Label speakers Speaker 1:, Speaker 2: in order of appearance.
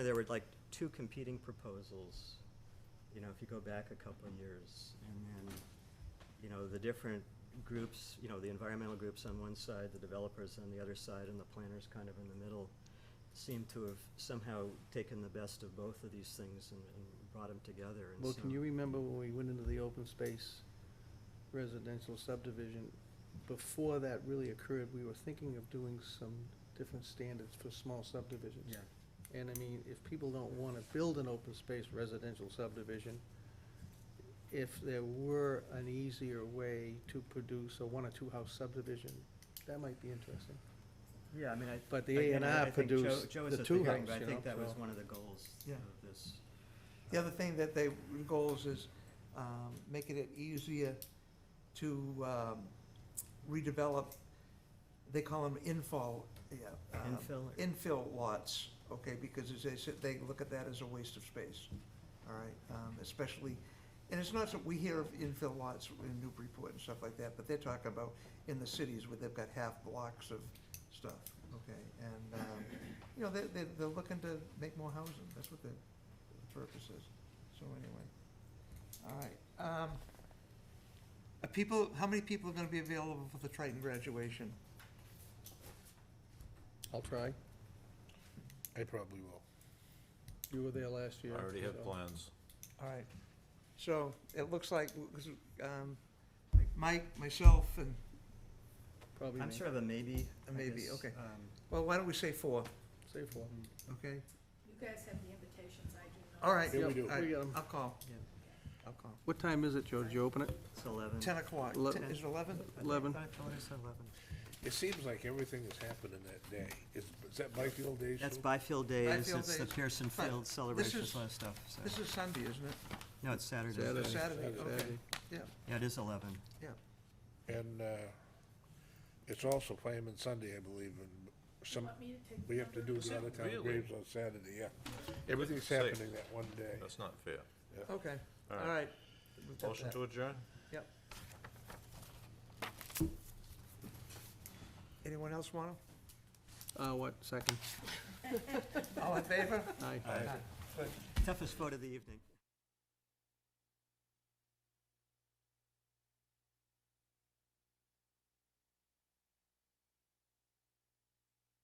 Speaker 1: There were like two competing proposals, you know, if you go back a couple of years. And then, you know, the different groups, you know, the environmental groups on one side, the developers on the other side, and the planners kind of in the middle, seem to have somehow taken the best of both of these things and, and brought them together. And
Speaker 2: Well,
Speaker 1: so-
Speaker 2: can you remember when we went into the open space residential subdivision? Before that really occurred, we were thinking of doing some different standards for small subdivisions.
Speaker 1: Yeah,
Speaker 2: And I mean, if people don't want to build an open space residential subdivision, if there were an easier way to produce a one or two house subdivision, that might be interesting.
Speaker 1: yeah, I mean, I.
Speaker 2: But the A
Speaker 1: again,
Speaker 2: and
Speaker 1: I- I
Speaker 2: R
Speaker 1: think Joe-
Speaker 2: produced
Speaker 1: Joe was
Speaker 2: the
Speaker 1: at
Speaker 2: two house,
Speaker 1: hearing, But I
Speaker 2: you
Speaker 1: think
Speaker 2: know,
Speaker 1: that was
Speaker 2: so-
Speaker 1: one of the goals
Speaker 3: Yeah.
Speaker 1: of this.
Speaker 3: The other thing that they, goals is um, making it easier to um, redevelop, they call them infill, yeah. um,
Speaker 1: Infill or-
Speaker 3: Infill lots, okay, because as they said, they look at that as a waste of space, all right? um, Especially, and it's not, so we hear of infill lots in Newburyport and stuff like that, but they're talking about in the cities where they've got half blocks of stuff, okay? And, um, you know, they're, they're, they're looking to make more housing, that's what the the purpose is. So anyway, all right. Um, are people, how many people are gonna be available for the Triton graduation?
Speaker 2: I'll try.
Speaker 4: I probably will.
Speaker 2: You were there last year.
Speaker 5: I already have
Speaker 2: so-
Speaker 5: plans.
Speaker 3: All right. So it looks like, um, Mike, myself, and,
Speaker 2: Probably
Speaker 1: I'm
Speaker 2: me.
Speaker 1: sort of a maybe.
Speaker 3: A
Speaker 1: I
Speaker 3: maybe,
Speaker 1: guess.
Speaker 3: okay.
Speaker 1: Um,
Speaker 3: well, why don't we say four,
Speaker 2: Say four.
Speaker 3: okay?
Speaker 6: You guys have the invitations, I do not.
Speaker 3: All right.
Speaker 4: Yeah, we
Speaker 2: Yep,
Speaker 4: do.
Speaker 2: I got 'em.
Speaker 3: I'll call.
Speaker 1: Yeah.
Speaker 3: I'll call.
Speaker 2: What time is it, Joe? Did you open it?
Speaker 1: It's eleven.
Speaker 3: Ten o'clock.
Speaker 2: Le-
Speaker 3: Ten- Is it eleven?
Speaker 2: Eleven.
Speaker 1: I thought I said eleven.
Speaker 4: It seems like everything is happening that day. Is, is that Byfield Day
Speaker 1: That's
Speaker 4: soon?
Speaker 1: Byfield Days,
Speaker 3: Byfield
Speaker 1: it's the
Speaker 3: Days.
Speaker 1: Pearson
Speaker 3: But
Speaker 1: Field celebrations,
Speaker 3: is-
Speaker 1: all that stuff, so,
Speaker 3: This is Sunday, isn't it?
Speaker 1: no, it's Saturday.
Speaker 2: Saturday.
Speaker 3: Saturday, okay.
Speaker 2: Saturday.
Speaker 1: Yeah, it is eleven.
Speaker 4: And, uh, it's also Fireman Sunday, I believe, and
Speaker 6: You
Speaker 4: some,
Speaker 6: want me to take the
Speaker 4: we have to do
Speaker 6: number?
Speaker 4: the out of town
Speaker 5: Really?
Speaker 4: graves on Saturday, yeah. Everything's
Speaker 5: Safe.
Speaker 4: happening that one day.
Speaker 5: That's not fair.
Speaker 3: Okay, all
Speaker 5: All right.
Speaker 3: right. We've got
Speaker 5: Motion
Speaker 3: that.
Speaker 5: to adjourn?
Speaker 3: Anyone else want
Speaker 2: Uh, what, second?
Speaker 3: to? All in favor?
Speaker 2: Aye.
Speaker 3: Aye.
Speaker 1: Toughest vote of the evening.